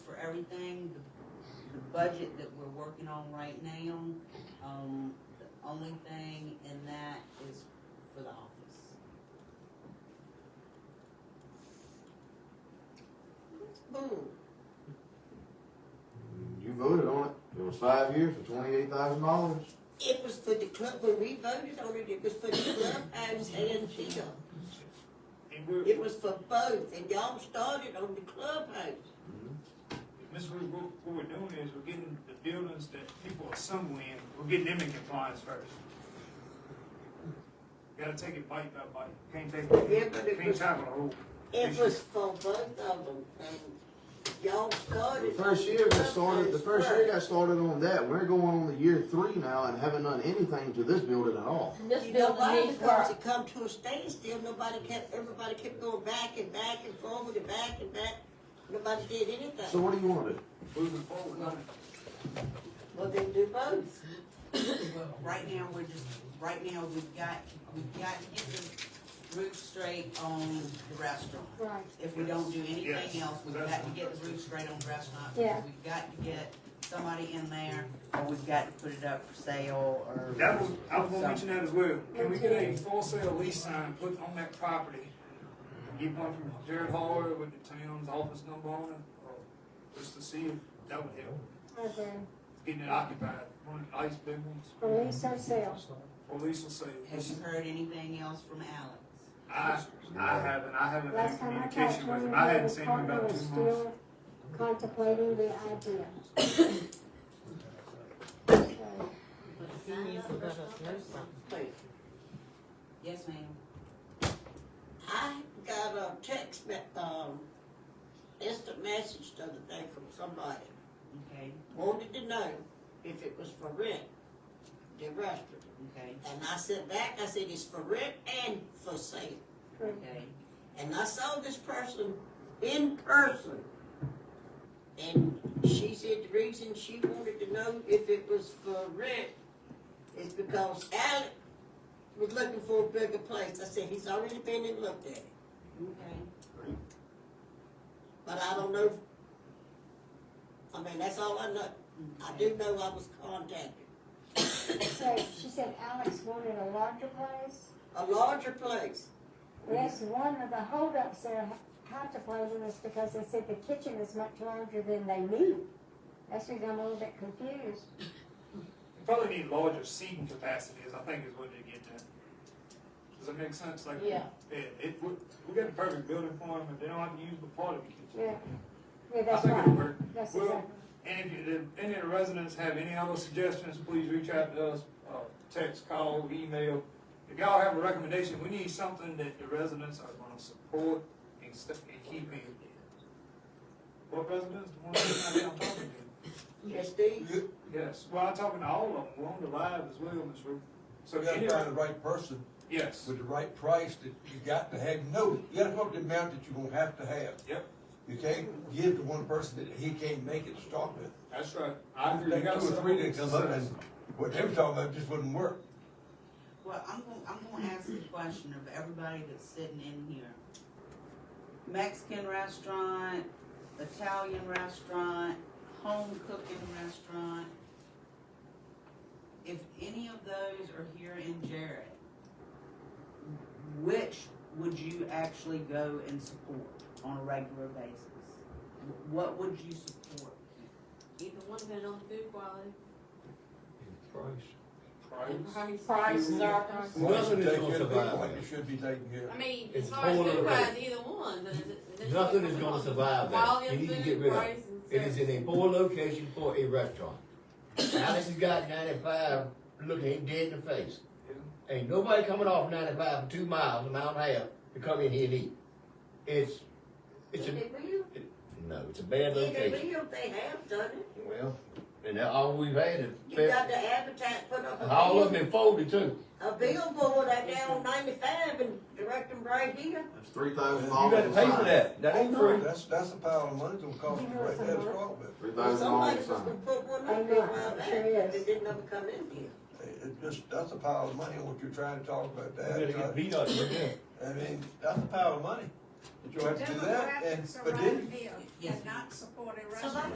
everything, the, the budget that we're working on right now, um, the only thing in that is for the office. Boom. You voted on it. It was five years for twenty-eight thousand dollars. It was for the club, when we voted on it, it was for the clubhouse and theater. And we're, It was for both, and y'all started on the clubhouse. Miss Ruth, what, what we're doing is we're getting the buildings that people are somewhere in, we're getting them in compliance first. Gotta take it bite by bite, can't take, Yeah, but it it. can't was- tackle the whole. It issue. was for both of them, and y'all The started. first year got started, the first year got Clubhouse started on that. We're going on the year three now and haven't done anything to this building at all. first. This You know building why? needs Because work. it come to a standstill, nobody kept, everybody kept going back and back and forward and back and back. Nobody did So anything. what do you wanna do? Moving forward, on it. Well, then do both. Right now, we're just, right now, we've got, we've got to get the roof straight on the restaurant. Right. If we don't do anything Yes. else, we've got to get the roof straight on the restaurant. Yeah. We've got to get somebody in there, or we've got to put it up for sale, or. That was, I was gonna mention that as well. Can we get a Okay. for sale lease sign put on that property? Get one from Jared Hall with the town's office number on it, or just to see if that would help. Okay. Getting it occupied, one of the nice big ones, Release or sale. or lease or sale. Have you heard anything else from Alex? I, I haven't, I haven't been in Last time I talked communication to with him, him, I he hadn't was seen him in about two months. still contemplating the idea. So, Wait, Yes, ma'am. I got a text, me- um, instant message the other day from somebody. Okay, wanted to know if it was for rent, the restaurant. okay, And I said back, I said, it's for rent and for sale. okay. And I saw this person in person. And she said the reason she wanted to know if it was for rent is because Alec was looking for a bigger place. I said, he's already been and looked at it. Okay. But I don't know. if- I mean, that's all I know. I do know I was contacted. So she said Alex wanted a larger place. A larger place. That's one of the holdups they're contemplating is because they said the kitchen is much larger than they need. That's why I'm a little bit confused. Probably need larger seating capacities, I think is what they get to. Does that make sense? Like, Yeah. It, it, we, we got the perfect building for them, and they don't have to use the part of the kitchen. Yeah, yeah, I that's think it'll right. work. That's Well, exactly. And if, you- if any of the residents have any other suggestions, please reach out to us, uh, text, call, email. If y'all have a recommendation, we need something that the residents are gonna support and st- and keep in. What residents? The ones that I'm talking to? Yes, these. Yes, well, I'm talking to all of them, we're on the live as well, Ms. Ruth. So, You gotta any- find the right person yes, with the right price that you got to have, you know, you gotta come up with the amount that you're gonna have to have. Yep. You can't give to one person that he can't make it to start with. that's right. I agree. Take You got two or some- three that come up and what they were talking about just wouldn't work. Well, I'm gonna, I'm gonna ask the question of everybody that's sitting in here. Mexican restaurant, Italian restaurant, home cooking restaurant. If any of those are here in Jarrett, which would you actually go and support on a regular basis? What would you support? Either one depending on the food quality. Price. Price, service. Once you Nothing is take gonna care of the survive. one, you should be taking care I of. mean, It's as far as all food over. wise, either one, but it's- it's- Nothing is gonna survive that. Quality of You need to food, get rid of it. price, and It is in a poor location for a restaurant. Alex has got ninety-five, look, he dead in the face. Ain't nobody coming off ninety-five for two miles, a mile and a half, to come in here and eat. It's, it's a, no, it's a bad Either location. will, they have done it. Well, and that all we've had is, You got fair- to advertise, put up a. and all of bill- them folded too. A billboard out there on ninety-five and direct them right here. It's three thousand You dollars. gotta pay for that, that ain't free. That's, that's a pile of money it's gonna cost you right there to start with. Three Well, thousand Somebody dollars was gonna put one I up know, there while it back, sure but is. it didn't ever come in here. It it just, that's a pile of money, what you're trying to talk about You gotta get that. uh, beat up, you know. I mean, that's a pile of money. But you'll have to do that and, but then Demographics around here Yes, and not supported So that- restaurants.